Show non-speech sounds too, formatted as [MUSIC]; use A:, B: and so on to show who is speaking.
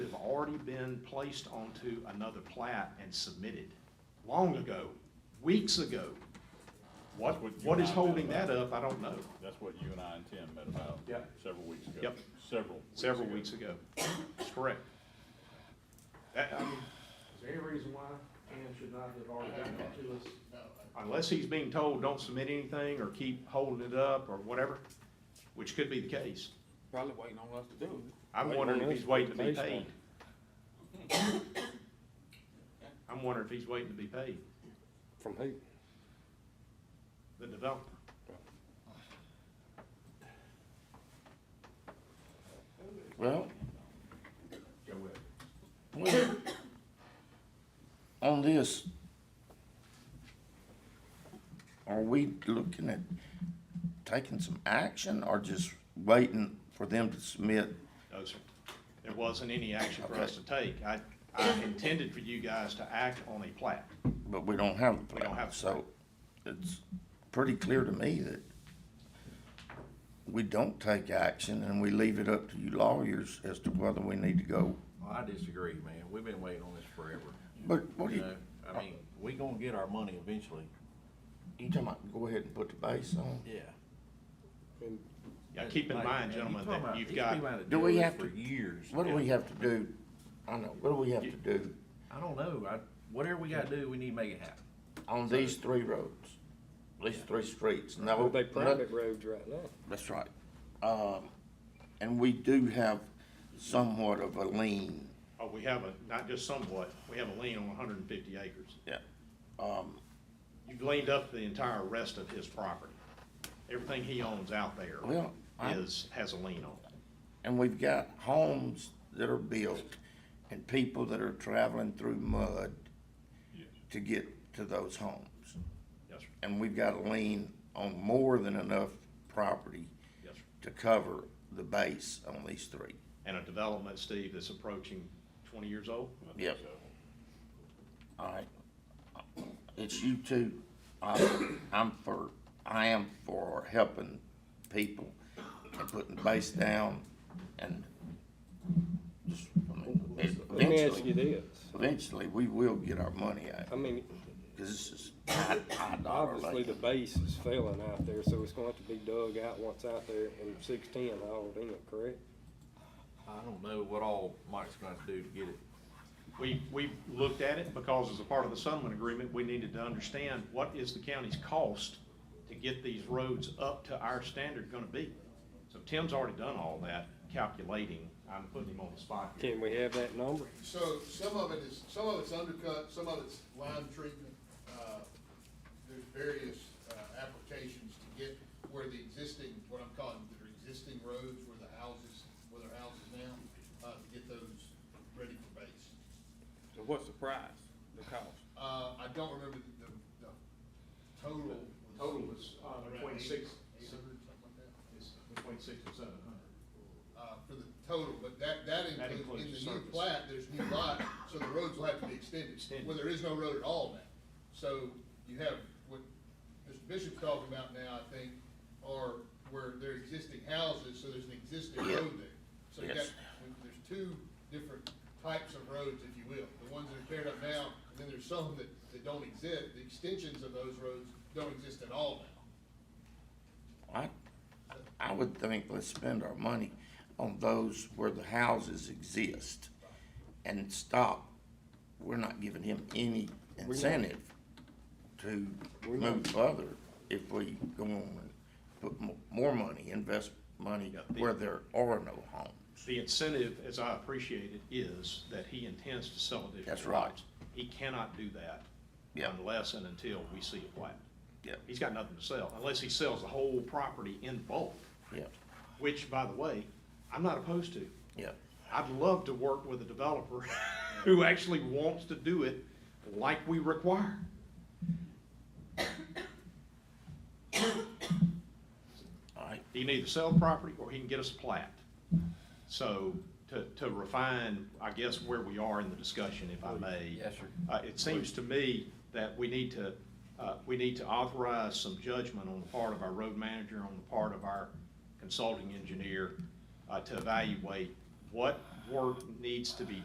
A: already been placed onto another plat and submitted long ago, weeks ago. What,
B: That's what you
A: what
B: and
A: is
B: I met
A: holding that
B: about.
A: up, I don't know.
B: That's what you and I and Tim met about.
A: Yep.
B: Several weeks ago.
A: Yep.
B: Several.
A: Several weeks ago. That's correct. That- I mean,
C: Is there any reason why Cam should not have already gotten that to us?
A: unless he's being told, don't submit anything or keep holding it up or whatever, which could be the case.
D: Probably waiting on us to do it.
A: I'm
E: Waiting
A: wondering
E: on
A: if
E: us
A: he's waiting to be
E: to pay
A: paid. I'm wondering if he's waiting to be paid,
E: From who?
A: the developer.
E: Well,
A: Go with it.
E: well, [COUGHS] on this, are we looking at taking some action or just waiting for them to submit?
A: No, sir. There wasn't any action for us to take. I, I intended for you guys to act on a plat.
E: But we don't have the
A: We don't
E: plan,
A: have the
E: so it's pretty clear to me that we don't take action and we leave it up to you lawyers as to whether we need to go.
F: Well, I disagree, man. We've been waiting on this forever.
E: But what do
F: You
E: you,
F: know, I mean, we gonna get our money eventually.
E: you talking about, go ahead and put the base on?
F: Yeah.
A: Now, keep in
F: Like,
A: mind,
F: man, you
A: gentlemen,
F: talking
A: that
F: about-
A: you've
F: these
A: got,
F: people had
E: Do we
F: deal with
E: have
F: For
E: to-
F: years.
E: What do we have to do? I know, what do we have to do
F: I don't know. I, whatever we gotta do, we need to make it happen.
E: on these three roads? These three streets, no.
G: Well, they
E: no-
G: private roads right now.
E: That's right. Um, and we do have somewhat of a lien.
A: oh, we have a, not just somewhat, we have a lien on hundred and fifty acres.
E: Yeah. Um,
A: You've leaned up the entire rest of his property. Everything he owns out there
E: Well, I-
A: is, has a lien on it.
E: and we've got homes that are built and people that are traveling through mud to get to those homes.
A: Yes, sir.
E: And we've got a lien on more than enough property
A: Yes, sir.
E: to cover the base on these three.
A: And a development, Steve, that's approaching twenty years old?
E: Yep. All right. It's you two. I'm, I'm for, I am for helping people and putting the base down and just, I mean,
G: Let me ask
E: eventually,
G: you this,
E: eventually, we will get our money out,
G: I mean,
E: cause this is high, high dollar.
G: obviously the base is failing out there, so it's going to have to be dug out once out there and six-ten hauled in, correct?
F: I don't know what all Mike's gonna have to do to get it.
A: We, we looked at it because as a part of the settlement agreement, we needed to understand what is the county's cost to get these roads up to our standard gonna be. So Tim's already done all that calculating. I'm putting him on the spot here.
G: Can we have that number?
H: So some of it is, some of it's undercut, some of it's lime treatment. uh, There's various uh, applications to get where the existing, what I'm calling the existing roads, where the houses, where their houses now, uh, to get those ready for base.
D: So what's the price, the cost?
H: Uh, I don't remember the, the- the total.
C: Total was, uh,
H: around
C: between
H: eight-
C: six-
H: Eight hundred, something like that.
C: It's between six and seven hundred.
H: uh, for the total, but that, that
A: That
H: includes,
A: includes
H: in the new
A: surface.
H: plat, there's new lot, so the roads will have to be extended.
A: Extended.
H: Well, there is no road at all now. So you have what Mr. Bishop's talking about now, I think, are where there are existing houses, so there's an existing
E: Yeah.
H: road there. So you got,
E: Yes.
H: there's two different types of roads, if you will, the ones that are paired up now, and then there's some that, that don't exist. The extensions of those roads don't exist at all now.
E: I, I would think let's spend our money on those where the houses exist and stop. We're not giving him any incentive to move further if we go on and put mo- more money, invest money
A: Yeah, the-
E: where there are no homes.
A: The incentive, as I appreciate it, is that he intends to sell additional.
E: That's right.
A: lots. He cannot do that
E: Yeah.
A: unless and until we see a plat.
E: Yeah,
A: He's got nothing to sell, unless he sells the whole property in bulk,
E: yeah,
A: which, by the way, I'm not opposed to.
E: yeah.
A: I'd love to work with a developer [LAUGHS] who actually wants to do it like we require.
E: All right,
A: He can either sell the property or he can get us a plat. So to, to refine, I guess, where we are in the discussion, if I may.
F: Oh, Yes, sir.
A: Uh, it seems to me that we need to, uh, we need to authorize some judgment on the part of our road manager, on the part of our consulting engineer, uh, to evaluate what work needs to be